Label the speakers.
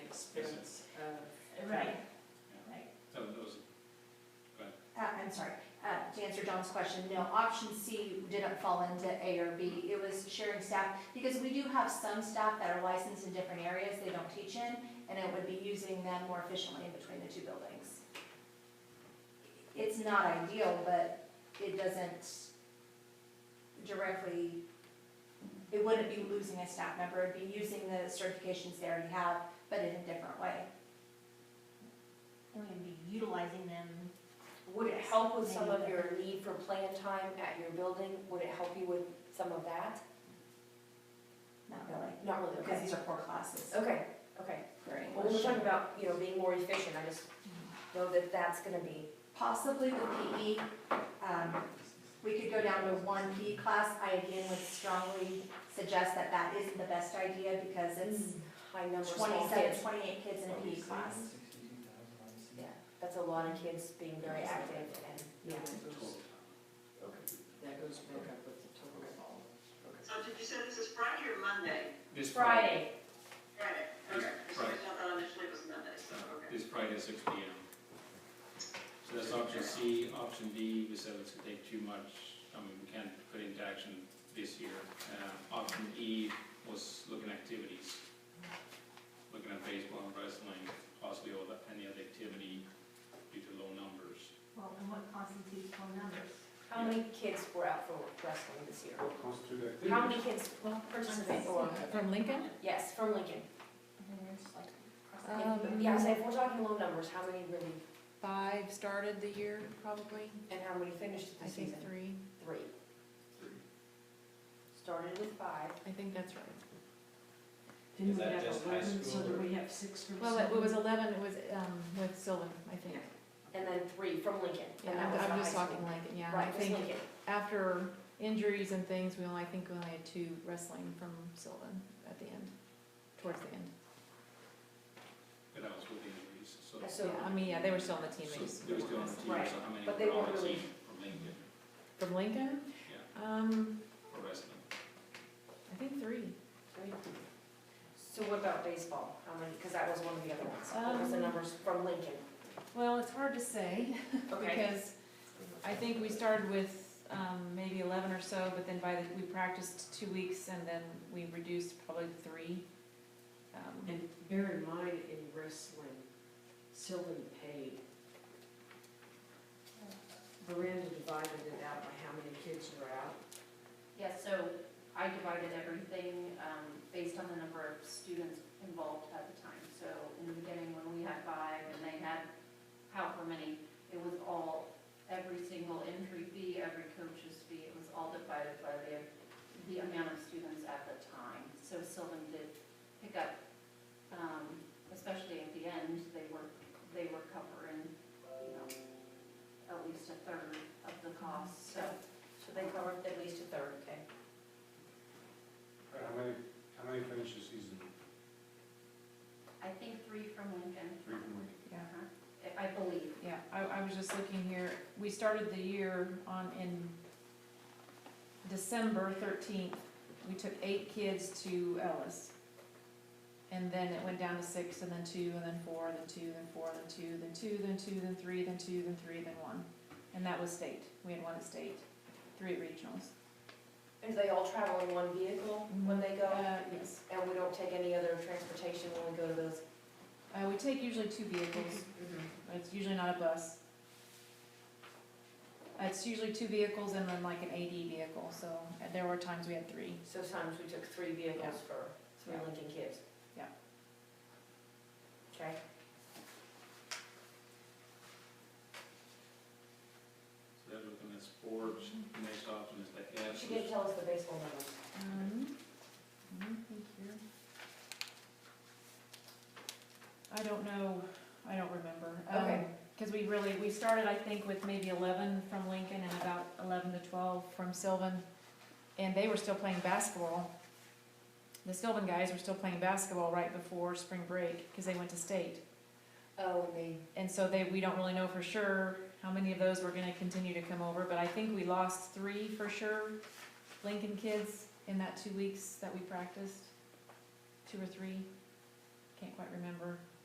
Speaker 1: Uh, John's question, no, option C didn't fall into A or B. It was sharing staff, because we do have some staff that are licensed in different areas they don't teach in, and it would be using them more efficiently in between the two buildings. It's not ideal, but it doesn't directly, it wouldn't be losing a staff member, it'd be using the certifications they already have, but in a different way.
Speaker 2: We're gonna be utilizing them.
Speaker 3: Would it help with some of your need for plan time at your building? Would it help you with some of that?
Speaker 1: Not really,
Speaker 3: Not really,
Speaker 1: because
Speaker 3: okay.
Speaker 1: these are core classes
Speaker 3: Okay, okay.
Speaker 1: for
Speaker 3: Well, we
Speaker 1: English.
Speaker 3: we're talking about, you know, being more efficient, I just know that that's gonna be,
Speaker 1: Possibly the PE, um, we could go down to one PE class. I again would strongly suggest that that isn't the best idea because it's
Speaker 3: high number
Speaker 4: Mm-hmm.
Speaker 3: of small
Speaker 1: 27,
Speaker 3: kids.
Speaker 1: 28 kids in a PE class.
Speaker 3: Yeah, that's a lot of kids being very active and, yeah.
Speaker 5: That goes back up with the total of all.
Speaker 6: So did you say this is Friday or Monday?
Speaker 7: This Friday,
Speaker 3: Friday,
Speaker 6: Friday, okay. For some
Speaker 7: Friday.
Speaker 6: reason I thought initially it was Monday, so, okay.
Speaker 7: this Friday at six P M. So that's option C, option D, we said it's gonna take too much, I mean, we can't put into action this year. Uh, option E was looking at activities, looking at baseball and wrestling, possibly all that, any other activity due to low numbers.
Speaker 2: Well, and what constitutes phone numbers?
Speaker 3: how many kids were out for wrestling this year?
Speaker 8: What constitutes activity?
Speaker 3: How many kids participated or,
Speaker 4: From Lincoln?
Speaker 3: yes, from Lincoln?
Speaker 4: Um,
Speaker 3: Yeah, so if we're talking low numbers, how many really,
Speaker 4: Five started the year, probably.
Speaker 3: and how many finished
Speaker 4: I
Speaker 3: the
Speaker 4: think
Speaker 3: season?
Speaker 4: three.
Speaker 3: Three. Started with five.
Speaker 4: I think that's right.
Speaker 5: Didn't
Speaker 9: Is
Speaker 5: we
Speaker 9: that
Speaker 5: have
Speaker 9: just high
Speaker 5: eleven, so
Speaker 9: school
Speaker 5: do
Speaker 9: or-
Speaker 5: we have six or
Speaker 4: Well, it was
Speaker 5: seven?
Speaker 4: eleven, it was, um, with Sylvan, I think.
Speaker 3: And then three from Lincoln.
Speaker 4: Yeah,
Speaker 3: and that
Speaker 4: I'm-
Speaker 3: was the
Speaker 4: I'm just
Speaker 3: high
Speaker 4: talking
Speaker 3: school.
Speaker 4: Lincoln, yeah. I
Speaker 3: Right, just
Speaker 4: think
Speaker 3: Lincoln.
Speaker 4: after injuries and things, we only, I think we only had two wrestling from Sylvan at the end, towards the end.
Speaker 7: But that was with injuries, so.
Speaker 3: And
Speaker 4: Yeah,
Speaker 3: So,
Speaker 4: I mean, yeah, they were still on the team,
Speaker 7: So
Speaker 4: they just.
Speaker 7: They were still on the team,
Speaker 3: Right.
Speaker 7: so how many
Speaker 3: But they
Speaker 7: were on
Speaker 3: weren't
Speaker 7: the
Speaker 3: really-
Speaker 7: team from Lincoln
Speaker 4: From Lincoln?
Speaker 7: Yeah.
Speaker 4: Um,
Speaker 7: for wrestling?
Speaker 4: I think three.
Speaker 3: three. So what about baseball? How many, because that was one of the other ones. What was the
Speaker 4: Um,
Speaker 3: numbers from Lincoln?
Speaker 4: Well, it's hard to say.
Speaker 3: Okay.
Speaker 4: because I think we started with um, maybe eleven or so, but then by the, we practiced two weeks and then we reduced probably to three. Um,
Speaker 5: And bear in mind, in wrestling, Sylvan paid. Miranda divided it out by how many kids were out.
Speaker 10: Yeah, so I divided everything um, based on the number of students involved at the time. So in the beginning, when we had five and they had however many, it was all, every single entry fee, every coach's fee, it was all divided by the, the amount of students at the time. So Sylvan did pick up, um, especially at the end, they were, they were covering, you know, at least a third of the cost, so.
Speaker 3: So they covered at least a third, okay?
Speaker 8: How many, how many finished the season?
Speaker 10: I think three from Lincoln.
Speaker 8: Three from Lincoln.
Speaker 4: Yeah,
Speaker 10: Uh-huh. I I believe.
Speaker 4: yeah, I, I was just looking here, we started the year on, in December thirteenth, we took eight kids to Ellis. And then it went down to six, and then two, and then four, and then two, and then four, and then two, then two, then two, then three, then two, then three, then one. And that was state, we had one at state, three at regionals.
Speaker 3: And do they all travel in one vehicle when they go?
Speaker 4: Uh, yes.
Speaker 3: And we don't take any other transportation when we go to those?
Speaker 4: Uh, we take usually two vehicles, but it's usually not a bus. Uh, It's usually two vehicles and then like an AD vehicle, so uh, there were times we had three.
Speaker 3: So sometimes we took three vehicles for three
Speaker 4: Yeah.
Speaker 3: Lincoln kids?
Speaker 4: Yeah.
Speaker 3: Okay,
Speaker 7: So they're looking at sports, next option is the
Speaker 3: but
Speaker 7: F.
Speaker 3: you didn't tell us the baseball numbers.
Speaker 4: Um, let me think here. I don't know, I don't remember. Um,
Speaker 3: Okay.
Speaker 4: Cause we really, we started, I think, with maybe eleven from Lincoln and about eleven to twelve from Sylvan. And they were still playing basketball. The Sylvan guys were still playing basketball right before spring break, cause they went to state.
Speaker 3: Oh, and they,
Speaker 4: And so they, we don't really know for sure how many of those were gonna continue to come over, but I think we lost three for sure, Lincoln kids, in that two weeks that we practiced. Two or three, can't quite remember.